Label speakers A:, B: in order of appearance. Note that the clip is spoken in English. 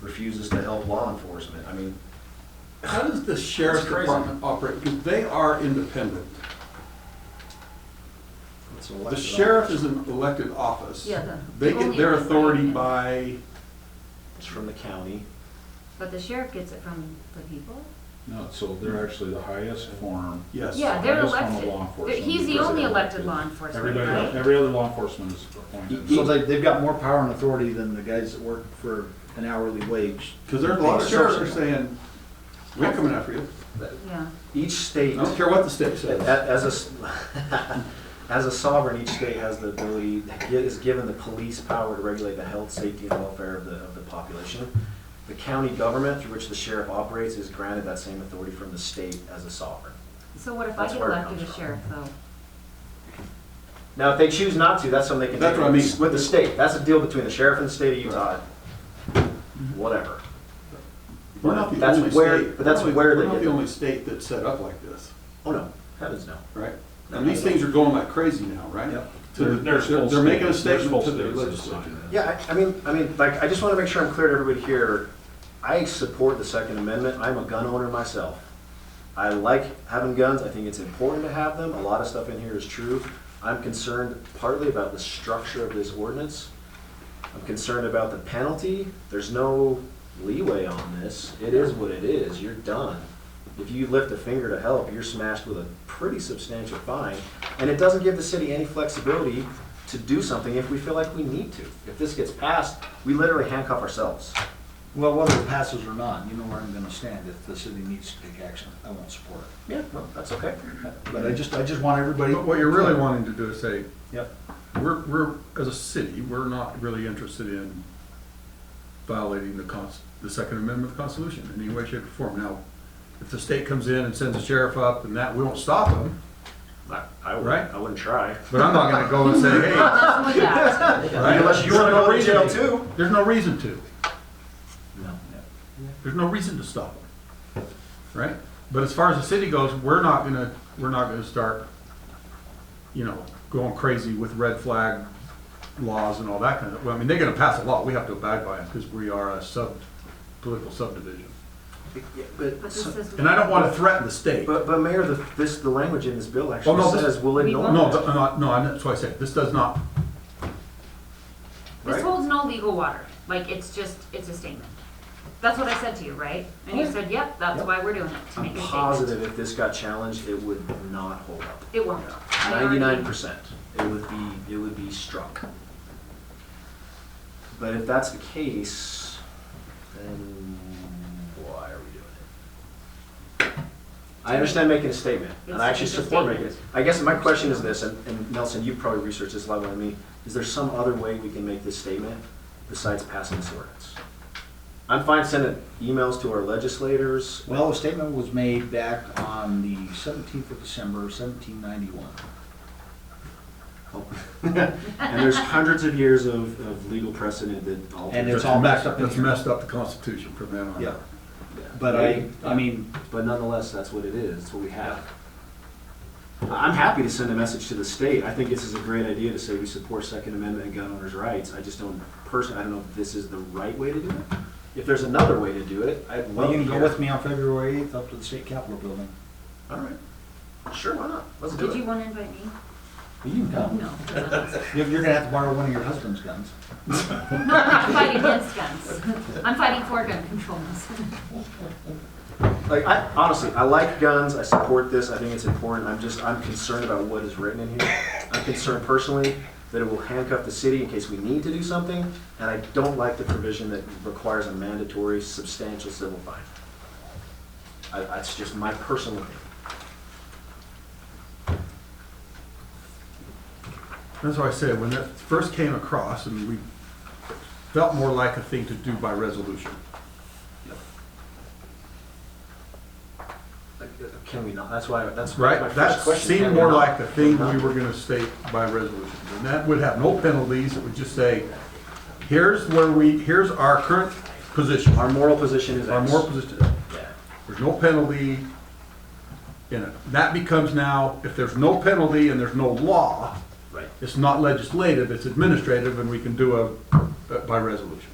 A: refuses to help law enforcement. I mean,
B: How does the sheriff's
A: That's crazy.
B: department operate? Because they are independent.
A: it's an
B: The
A: elected
B: sheriff
A: office.
B: is an elected office.
C: Yeah, the-
B: They get
C: only
B: their
C: if they
B: authority
C: bring it.
B: by,
A: It's from the county.
C: But the sheriff gets it from the people?
D: No, so they're actually the highest form.
B: yes.
C: Yeah, they're
D: highest form of law
C: elected. They're-
D: enforcement
C: He's the
D: because
C: only
D: they're
C: elected law enforcement,
D: Everybody,
C: right?
D: every other law enforcement is appointed.
E: So they, they've got more power and authority than the guys that work for an hourly wage.
B: Because there's a lot of sheriffs that are saying, we're coming after you.
C: Yeah,
A: Each
B: I
A: state,
B: don't
A: a-
B: care what the state says.
A: as a, s- as a sovereign, each state has the ability, is given the police power to regulate the health, safety, and welfare of the, of the population. The county government through which the sheriff operates is granted that same authority from the state as a sovereign.
C: so what if I
A: That's
C: get
A: where it
C: elected
A: comes
C: as
A: from.
C: sheriff, though?
A: Now, if they choose not to, that's something they can.
B: That's
A: do
B: what I mean.
A: With the state, that's a deal between the sheriff and the state of Utah, whatever.
B: We're not the
A: That's
B: only
A: where-
B: state.
A: but that's
B: we're not-
A: where they
B: We're not
A: get
B: the
A: it.
B: only state that's set up like this,
A: Oh, no, heavens no.
B: right? And these things are going like crazy now, right?
A: Yep.
B: To the-
D: There's
B: They're
D: full
B: they're making a
D: states- there's
B: statement
D: full
B: to the
D: states that
B: legislature.
D: sign
A: Yeah, I, I mean, I mean, like, I just want to make sure I'm clear to everybody here. I support the Second Amendment. I'm a gun owner myself. I like having guns. I think it's important to have them. A lot of stuff in here is true. I'm concerned partly about the structure of this ordinance. I'm concerned about the penalty. There's no leeway on this. It is what it is. You're done. If you lift a finger to help, you're smashed with a pretty substantial fine. And it doesn't give the city any flexibility to do something if we feel like we need to. If this gets passed, we literally handcuff ourselves.
E: Well, whether it passes or not, you know where I'm gonna stand. If the city needs to take action, I won't support it.
A: Yeah, well, that's okay.
E: But I just, I just want everybody.
F: But what you're really wanting to do is say,
A: Yep.
F: we're, we're, as a city, we're not really interested in violating the cons, the Second Amendment of the Constitution in any way, shape, or form. Now, if the state comes in and sends a sheriff up and that, we won't stop them,
A: I, I wouldn't,
F: Right.
A: I wouldn't try.
F: but I'm not gonna go and say, hey,
C: That's with that.
F: Right.
A: Unless you want to go to jail
F: There's no
A: too.
F: there's no reason to.
E: No, no.
F: There's no reason to stop them, right? But as far as the city goes, we're not gonna, we're not gonna start, you know, going crazy with red flag laws and all that kind of, well, I mean, they're gonna pass a law, we have to abide by it, because we are a sub, political subdivision.
A: Yeah, But,
C: But this is.
F: And I don't wanna threaten the state.
A: but, but Mayor, the, this, the language in this bill
F: Oh,
A: actually
F: no, this-
A: says we'll
C: We
A: ignore.
C: won't.
F: No, but, uh, no, and that's why I said, this does not,
C: This
A: Right.
C: holds no legal water, like, it's just, it's a statement. That's what I said to you, right? And you said, yep, that's
A: Yep.
C: why we're doing it, to
A: I'm
C: make a statement.
A: positive if this got challenged, it would not hold up.
C: It won't. I already-
A: Ninety-nine percent, it would be, it would be struck. But if that's the case, then why are we doing it? I understand making a statement, and I actually
C: It's- it's a
A: support making
C: statement.
A: it. I guess my question is this, and and Nelson, you've probably researched this a lot more than me, is there some other way we can make this statement besides passing this ordinance? I'm fine sending emails to our legislators,
E: Well, a statement was made back on the seventeenth of December, seventeen ninety-one.
A: and there's hundreds of years of, of legal precedent that all.
E: And it's
F: that's
E: all
F: messed
E: backed up
F: up,
E: in
F: that's
E: here.
F: messed up the Constitution from then on.
E: Yeah. But I, I mean,
A: But nonetheless, that's what it is, that's what we have. I- I'm happy to send a message to the state, I think this is a great idea to say we support Second Amendment and gun owners' rights, I just don't, personally, I don't know if this is the right way to do it. If there's another way to do it, I'd
E: well,
A: love
E: you
A: to
E: can go
A: hear.
E: with me on February eighth up to the state capitol building.
A: All right, sure, why not, let's do
C: Did you
A: it.
C: wanna invite me?
E: You can come.
C: No. No,
E: You're you're gonna have to borrow one of your husband's guns.
C: I'm not fighting against guns. I'm fighting for gun controls.
A: Like, I, honestly, I like guns, I support this, I think it's important, I'm just, I'm concerned about what is written in here. I'm concerned personally that it will handcuff the city in case we need to do something, and I don't like the provision that requires a mandatory substantial civil fine. I, that's just my personal opinion.
F: That's why I said, when that first came across, and we felt more like a thing to do by resolution.
A: Like, uh, Can we not, that's why, that's my
F: Right,
A: first
F: that
A: question. Can
F: seemed
A: we
F: more
A: not?
F: like the thing we
A: Not-
F: were gonna state by resolution. And that would have no penalties, it would just say, here's where we, here's our current position,
A: Our moral position is X.
F: our moral position.
A: Yeah.
F: There's no penalty in it. That becomes now, if there's no penalty and there's no law,
A: Right.
F: it's not legislative, it's administrative, and we can do a, by resolution.